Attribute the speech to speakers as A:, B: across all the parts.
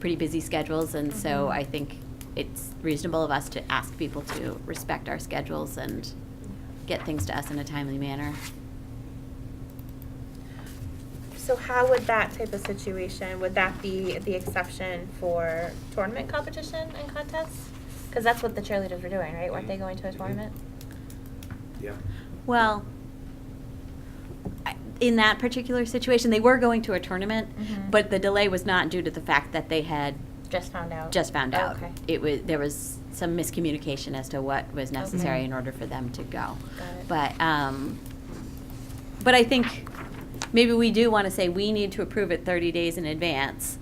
A: pretty busy schedules, and so I think it's reasonable of us to ask people to respect our schedules and get things to us in a timely manner.
B: So how would that type of situation, would that be the exception for tournament competition and contests? Because that's what the cheerleaders were doing, right? Weren't they
A: Mm-hmm.
B: going to a
C: Mhm.
B: tournament?
C: Yeah.
A: Well, I- in that particular situation, they were going to a tournament,
B: Mhm.
A: but the delay was not due to the fact that they had
B: Just found out.
A: just found out.
B: Okay.
A: It was, there was some miscommunication as to what was necessary
B: Okay.
A: in order for them to go.
B: Got it.
A: But, um, but I think maybe we do want to say we need to approve it 30 days in advance.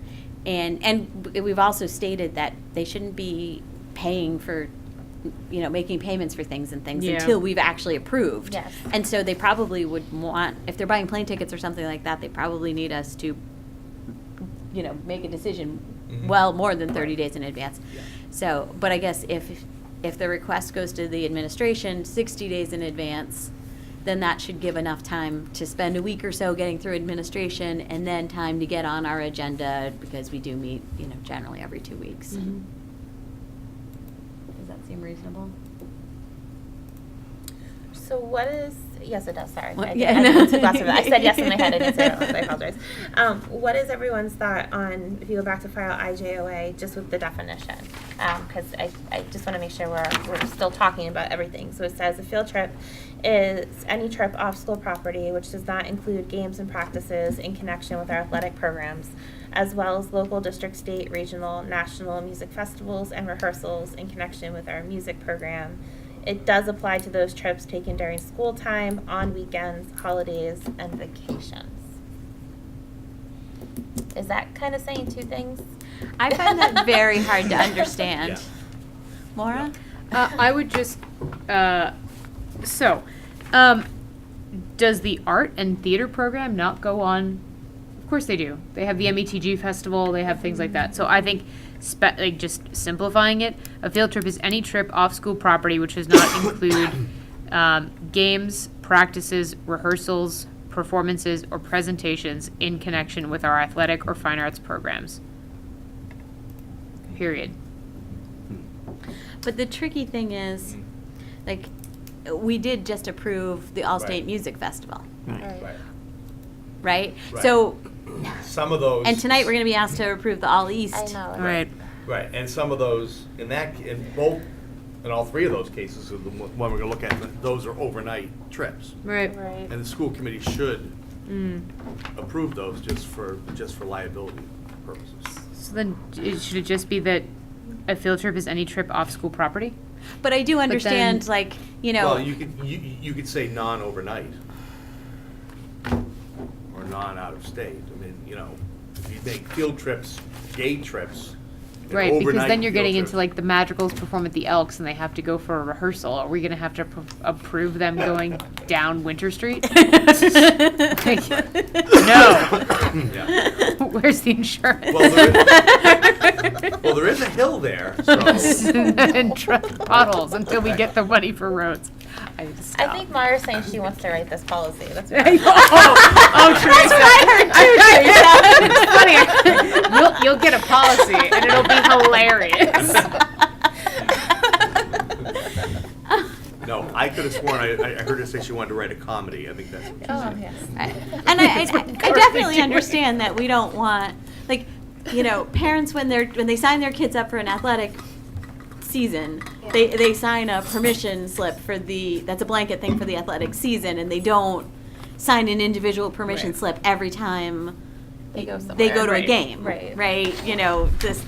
A: And, and w- we've also stated that they shouldn't be paying for, you know, making payments for things and things
D: Yeah.
A: until we've actually approved.
B: Yes.
A: And so they probably would want, if they're buying plane tickets or something like that, they probably need us to, you know, make a decision
C: Mhm.
A: well more than 30 days in advance.
C: Yeah.
A: So, but I guess if, if the request goes to the administration 60 days in advance, then that should give enough time to spend a week or so getting through administration and then time to get on our agenda because we do meet, you know, generally every two weeks.
D: Uh,
A: Does that seem reasonable?
B: So what is, yes, it does, sorry.
A: What-
B: I,
A: yeah,
B: did, I,
A: no.
B: took lots of it. I said yes in my head, I didn't say it out loud, so I apologize. Um, what is everyone's thought on, if you go back to file IJOA, just with the definition? Because I, I just want to make sure we're, we're still talking about everything. So it says a field trip is any trip off school property which does not include games and practices in connection with our athletic programs, as well as local, district, state, regional, national music festivals and rehearsals in connection with our music program. It does apply to those trips taken during school time, on weekends, holidays, and vacations. Is that kind of saying two things?
A: I find that very hard to understand. Maura?
D: Uh, I would just, uh, so, um, does the art and theater program not go on? Of course they do. They have the METG festival, they have things like that. So I think, spe- like, just simplifying it, a field trip is any trip off school property which does not include um, games, practices, rehearsals, performances, or presentations in connection with our athletic or fine arts programs. Period.
A: But the tricky thing is,
C: Mm-hmm.
A: like, we did just approve the Allstate
C: Right.
A: Music Festival,
C: Right.
A: right?
C: Right.
A: So,
C: Some of those.
A: and tonight we're going to be asked to approve the All East.
B: I know.
D: All right.
C: Right, and some of those, in that, in both, in all three of those cases, of the one one we're gonna look at, those are overnight trips.
D: Right.
B: Right.
C: And the school committee should
D: Mm.
C: approve those just for, just for liability purposes.
D: So then, it, should it just be that a field trip is any trip off school property?
A: But I do understand,
D: then-
A: like, you know,
C: Well, you could, you, you could say non-overnight. Or non-out of state, I mean, you know, if you make field trips, day trips. and
D: Right, because
C: overnight
D: then you're
C: field
D: getting into
C: trips-
D: like the Madrigals perform at the Elks and they have to go for a rehearsal. Are we gonna have to pr- approve them going down Winter Street? Like, No,
C: Yeah.
D: where's the insurance?
C: Well, there is- Well, there is a hill there, so.
D: And truck potholes until we get the money for roads. I need to
B: I think
D: stop.
B: Mara's saying she wants to write this policy. That's
D: I know.
B: right.
D: Oh, oh, Teresa. It's funny. You'll, you'll get a policy and it'll be hilarious.
C: No, I could have sworn, I, I heard her say she wanted to write a comedy, I think that's what she
B: Oh,
C: said.
B: yes.
A: I- and I, I,
D: That's what
A: I
D: cars
A: definitely
D: do.
A: understand that we don't want, like, you know, parents when they're when they sign their kids up for an athletic season, they they sign a permission slip for the that's a blanket thing for the athletic season, and they don't sign an individual permission
B: Right.
A: slip every time
B: They go
A: they
B: somewhere.
A: go to a
D: Right.
A: game,
B: Right.
A: Right? You know, this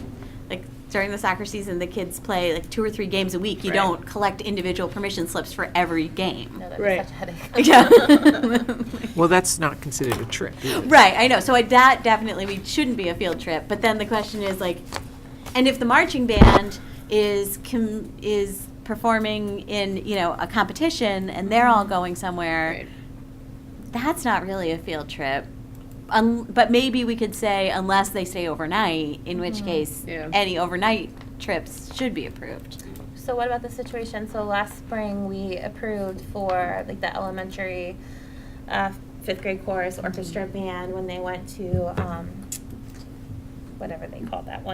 A: like during the soccer season, the kids play like two or three games a week. You
B: Right.
A: don't collect individual permission slips for every game.
B: No, that'd be
D: Right.
B: such a headache.
A: Yeah.
E: Well, that's not considered a trip. is it?
A: Right, I know. So I, that definitely we shouldn't be a field trip. But then the question is like, and if the marching band is com- is performing in you know a competition and they're all going somewhere, that's not really a field trip. Un- but maybe we could say unless they stay overnight, in which case
D: Yeah.
A: any overnight trips should be approved.
B: So what about the situation, so last spring, we approved for like the elementary uh, fifth grade
D: Mm-hmm.
B: chorus orchestra band when they went to, um, whatever they call that one.